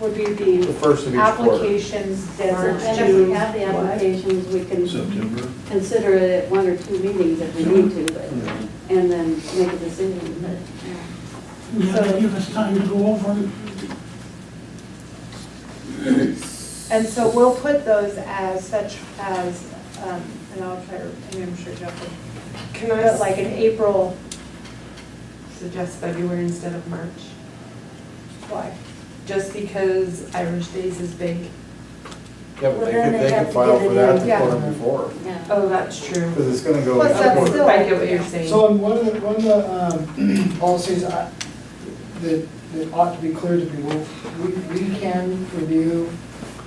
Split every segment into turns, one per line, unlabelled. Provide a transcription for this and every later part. would be the
The first of each quarter.
applications
And
deadline.
if we have the applications, we can
September.
consider it at one or two meetings if we need to, but,
Yeah.
and then make a decision, but,
Yeah,
So-
they give us time to go over them.
And so we'll put those as such as, um, and I'll try, to- I mean, I'm sure Jeff would. Can I? Like an April,
suggest February instead of March,
why?
just because Irish Days is big.
Yeah, but they
Well, then
could,
they
they
have
could
to
file
get
for
it
that
in.
the
Yeah.
quarter before,
yeah.
Oh, that's true.
because it's gonna go.
Plus,
each
that's
quarter.
still-
I get what you're saying.
So on one of the, one of the um, policies I- that, that ought to be clear to people, we, we can review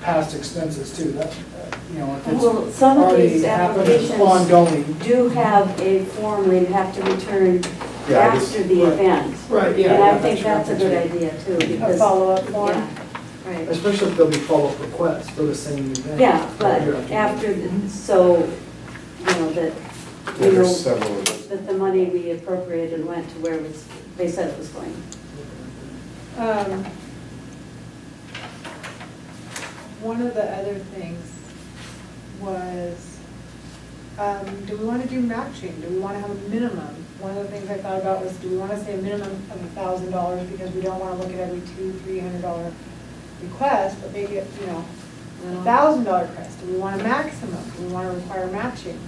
past expenses too, that, uh, you know, if it's
Well, some of
already
these
happened, it's
applications
ongoing.
do have a form where you have to return
Yeah, I just-
after the
right.
event.
Right,
And I think that's a good idea too,
A
because,
follow-up form?
yeah, right.
Especially if there'll be follow-up requests for the same event.
Yeah, but
Year after year.
after, the- so, you know, that,
Yeah,
you
There's
know,
several of those.
that the money we appropriated went to where it was, they said it was going.
Um, One of the other things was, um, do we want to do matching? Do we want to have a minimum? One of the things I thought about was, do we want to say a minimum of a thousand dollars because we don't want to look at every two, three hundred dollar request, but make it, you know,
Uh-huh.
a thousand dollar request? Do we want a maximum? Do we want to require matching?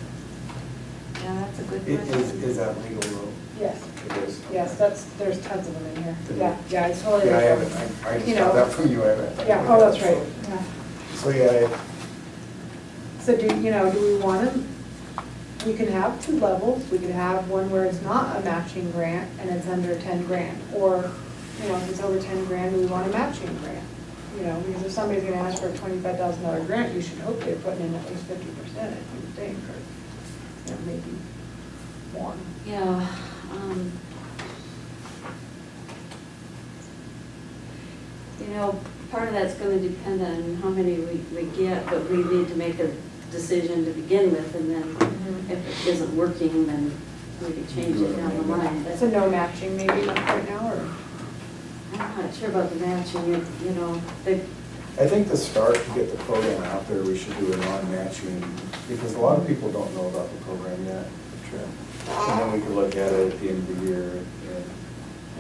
Yeah, that's a good
It Is,
question.
is that legal though?
Yes,
It is.
yes, that's, there's tons of them in here.
Good.
Yeah, yeah, I totally.
Yeah, I
agree.
haven't, I, I
You
just got
know.
that from you, I haven't.
Yeah, oh, that's right, yeah.
So, yeah, I-
So do, you know, do we want them, we can have two levels, we could have one where it's not a matching grant and it's under ten grand, or, you know, if it's over ten grand, we want a matching grant. You know, because if somebody's gonna ask for a twenty-five thousand dollar grant, you should hope they're putting in at least fifty percent, I would think, or, you know, maybe more.
Yeah, um. You know, part of that's gonna depend on how many we, we get, but we need to make a decision to begin with, and then
Mm-hmm.
if it isn't working, then we could change it down the line. But
So no matching maybe not right now, or?
I'm not sure about the matching, you you know, they,
I think the start to get the program out there, we should do a non-matching, because a lot of people don't know about the program yet. Sure. And then we could look at it at the end of the year, and,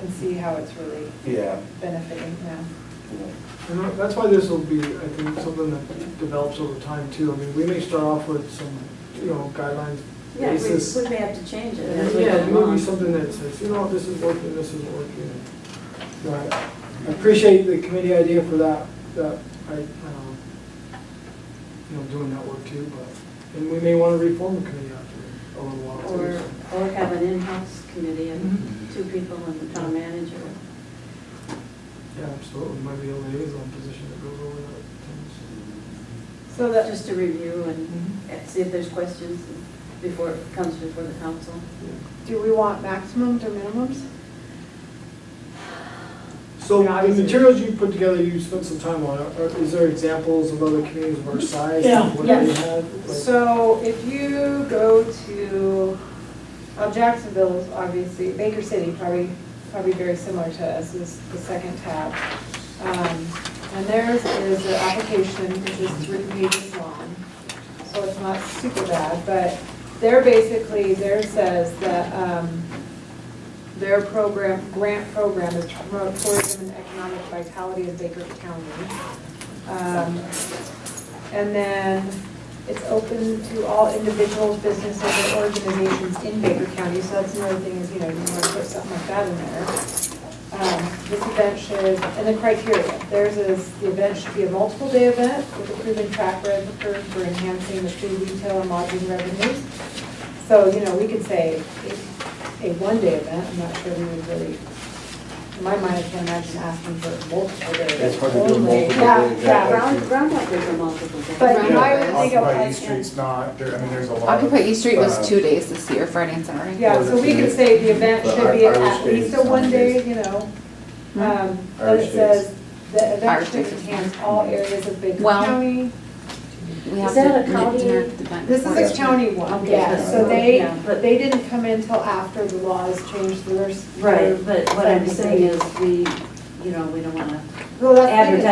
And see how it's really
yeah,
benefiting them.
you know.
And that- that's why this will be, I think, something that develops over time too. I mean, we may start off with some, you know, guidelines
yeah, we,
basis.
we may have to change it
And
as we go
yeah, it may
along.
be something that says, you know, this is working, this isn't working.
Right.
I appreciate the committee idea for that, that, I, um, you know, doing that work too, but, and we may want to reform the committee after a little while
Or,
too. so.
or have an in-house committee
Mm-hmm.
of two people and the town manager.
Yeah, absolutely, might be a liaison position that goes over that.
So that,
Just to review
Mm-hmm.
and see if there's questions before, it comes before the council.
do we want maximums or minimums?
So
Yeah,
the
obviously.
materials you put together, you spent some time on, are, is there examples of other communities of our size?
Yeah.
What
Yeah.
they have? Like-
So if you go to, well, Jacksonville's obviously, Baker City probably, probably very similar to us is the second tab. Um, And theirs is an application which is three pages long, so it's not super bad, but they're basically, theirs says that, um, their program, grant program is to promote tourism and economic vitality of Baker County. Um, and then it's open to all individuals, businesses, and organizations in Baker County, so that's another thing is, you know, you want to put something like that in there. Um, This event should, and the criteria, theirs is, the event should be a multiple day event with a proven track record for enhancing the food retail and lodging revenues. So, you know, we could say a, a one day event, I'm not sure we would really, in my mind, I can't imagine asking for a multiple day event.
That's hard to do a
only.
multiple
Yeah,
day
yeah.
event.
Round, round like there's a multiple day.
But
Yeah,
I would think of
Occupy
like-
East Street's not, there, I mean, there's a lot of.
Occupy East Street
uh,
was two days this year, Friday and Saturday.
Yeah, so we could say the event should be
But Irish
at
days,
least a one day,
Sundays.
you know.
Hmm.
um, But
Irish
it says, the event
Irish
should
days is
enhance
fine.
all areas of Baker
Well-
County.
We
Is
have
that
to
a county-
make dinner at the event.
This is
Yeah.
a county one,
Okay,
yeah,
that's
so
right.
they,
Yeah, but-
they didn't come in till after the laws changed theirs.
Right, but what I'm saying is, we, you know, we don't wanna
Well, that's the thing is-
advertise